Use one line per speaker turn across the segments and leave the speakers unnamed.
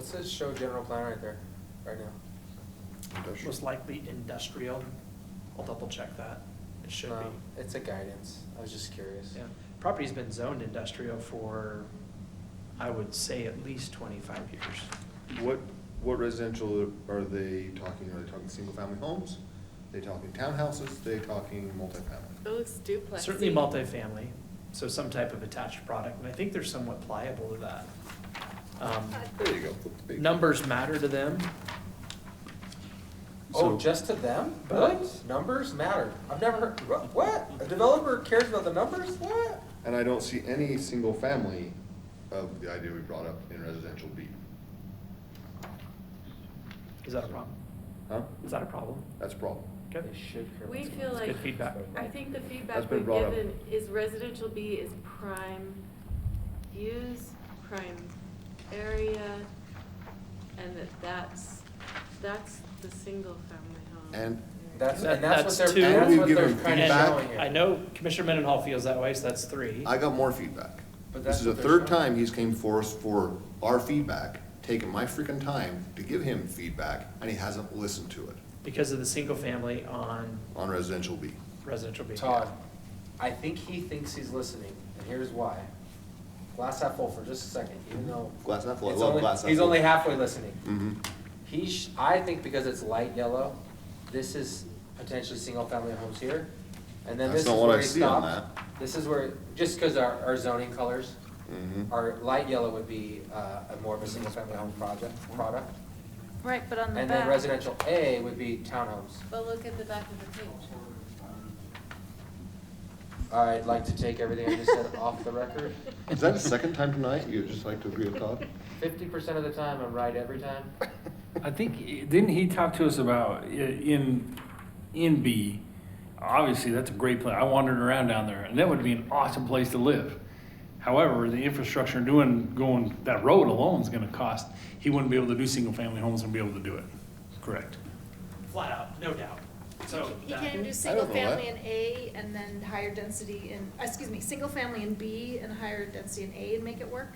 says show general plan right there, right now.
Most likely industrial. I'll double check that. It should
No,
be.
Um, It's a guidance, I was just curious.
Yeah. Property's been zoned industrial for, I would say, at least twenty-five years.
What, what residential are they talking? Are they talking single-family homes? They talking townhouses? They talking
It
multifamily?
looks duplex.
Certainly multifamily, so some type of attached product, and I think they're somewhat pliable to that. Um,
There you go. flip the page.
Numbers matter to them.
Oh,
So-
just to them?
Really?
What? Numbers matter. I've never heard, wha- what? A developer cares about the numbers? What?
And I don't see any single-family of the idea we brought up in residential B.
Is that a problem?
Huh?
Is that a problem?
That's a problem.
Okay.
They should care.
We
about the
feel
numbers.
like-
Good feedback.
I think the feedback
That's been
we've
brought up.
given is residential B is prime views, prime area, and that that's, that's the single family home.
And-
That's,
That-
and that's
that's
what
two.
they're,
And
that's
we've
what they're
given
kinda
feedback.
showing here.
I know Commissioner Mendenhall feels that way, so that's three.
I got more feedback.
But
This
that's
is the
what they're
third
showing.
time he's came for us for our feedback, taking my freaking time to give him feedback, and he hasn't listened to it
Because of the single family on
on residential B.
residential B.
Todd, I think he thinks he's listening, and here's why. Glass half full for just a second, even though.
Mm-hmm. Glass half full, I
it's
love
only-
glass half
He's
full.
only halfway listening.
Mm-hmm.
He, sh- I think because it's light yellow, this is potentially single-family homes here, and then
That's
this is
not what
where
I
he
see on
stopped. This is where, just because our, our zoning colors,
Mhm.
our light yellow would be, uh, a more of a single-family home project, product.
Right, but on the
And then
back,
residential A would be townhomes.
But look at the back of the page.
I'd like to take everything I just said off the record.
Is that the second time tonight you'd just like to agree with Todd?
Fifty percent of the time, I'm right every time.
I think, didn't he talk to us about, i- in, in B, obviously, that's a great place, I wandered around down there, and that would be an awesome place to live. However, the infrastructure doing, going, that road alone is gonna cost, he wouldn't be able to do single-family homes and be able to do it, correct?
Flat out, no doubt. So.
he
that-
can do
I
single
don't know that.
family in A and then higher density in, uh, excuse me, single family in B and higher density in A and make it work?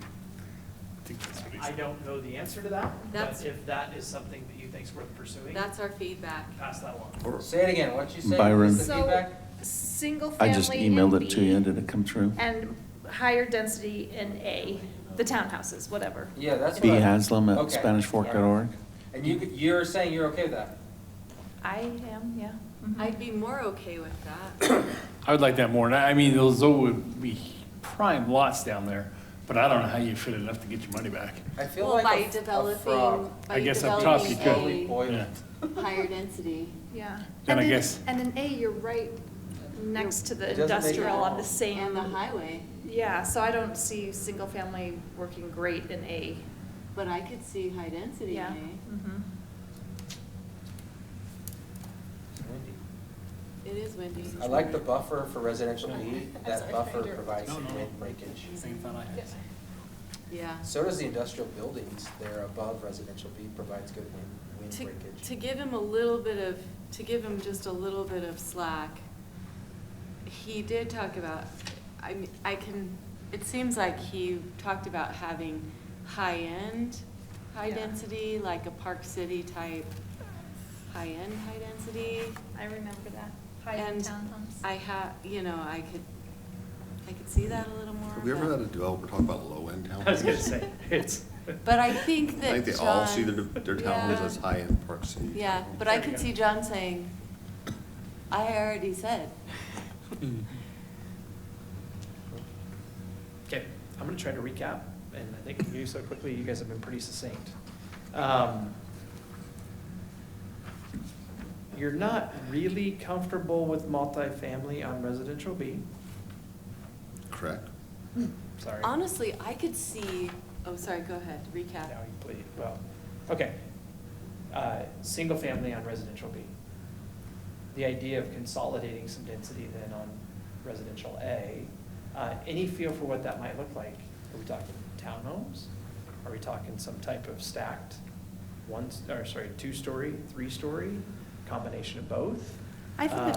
I think that's what he
I
said.
don't know the answer to that, but
That's-
if that is something that you think's worth pursuing,
That's our feedback.
pass that along.
Or-
Say it again, what you say,
Byron.
what's the
So,
feedback?
single family
I just emailed
in
it to you,
B
and did it come true?
And higher density in A, the townhouses, whatever.
Yeah, that's what.
B
I-
Haslam at
Okay,
SpanishFork.org.
alright. And you, you're saying you're okay with that?
I am, yeah. mhm.
I'd be more okay with that.
I would like that more, and I, I mean, those would be prime lots down there, but I don't know how you fit enough to get your money back.
I feel
Well,
like
by
a- a frog.
developing, by
I guess up top you could.
developing
Boiled.
Yeah.
a higher density.
Mm-hmm. Yeah.
Then
And
I
in-
guess-
And in A, you're right next to the
It doesn't make it
industrial on
all.
the same.
And the highway,
Yeah, so I don't see single family working great in A.
but I could see high density in
Yeah.
A.
mhm.
It is windy.
I like the buffer for residential B,
I'm
that
sorry,
buffer
Peter.
provides
No, no.
wind breakage.
Yeah.
So does the industrial buildings, they're above residential B, provides good wind, wind
To, to
breakage.
give him a little bit of, to give him just a little bit of slack, he did talk about, I mean, I can, it seems like he talked about having high-end,
Yeah.
high-density, like a Park City type, high-end, high-density.
I remember that.
And I ha, you know, I could, I could see that a little more.
Have we ever
but-
had a developer talk about low-end
I was gonna
townhomes?
say, it's.
But I think
I think
that
they all see their,
John-
their townhomes
Yeah.
as high-end Park City.
Yeah,
townhomes.
but I
There we
could
go.
see John saying, I already said.
Okay, I'm gonna try to recap, and I think you so quickly, you guys have been pretty succinct. Um, You're not really comfortable with multifamily on residential B,
Correct?
sorry.
Honestly, I could see, oh, sorry, go ahead, recap.
Now you plead, well, okay. Uh, Single family on residential B. The idea of consolidating some density then on residential A. Uh, Any feel for what that might look like? Are we talking townhomes? Are we talking some type of stacked one, or sorry, two-story, three-story, combination of both?
I think the
Uh,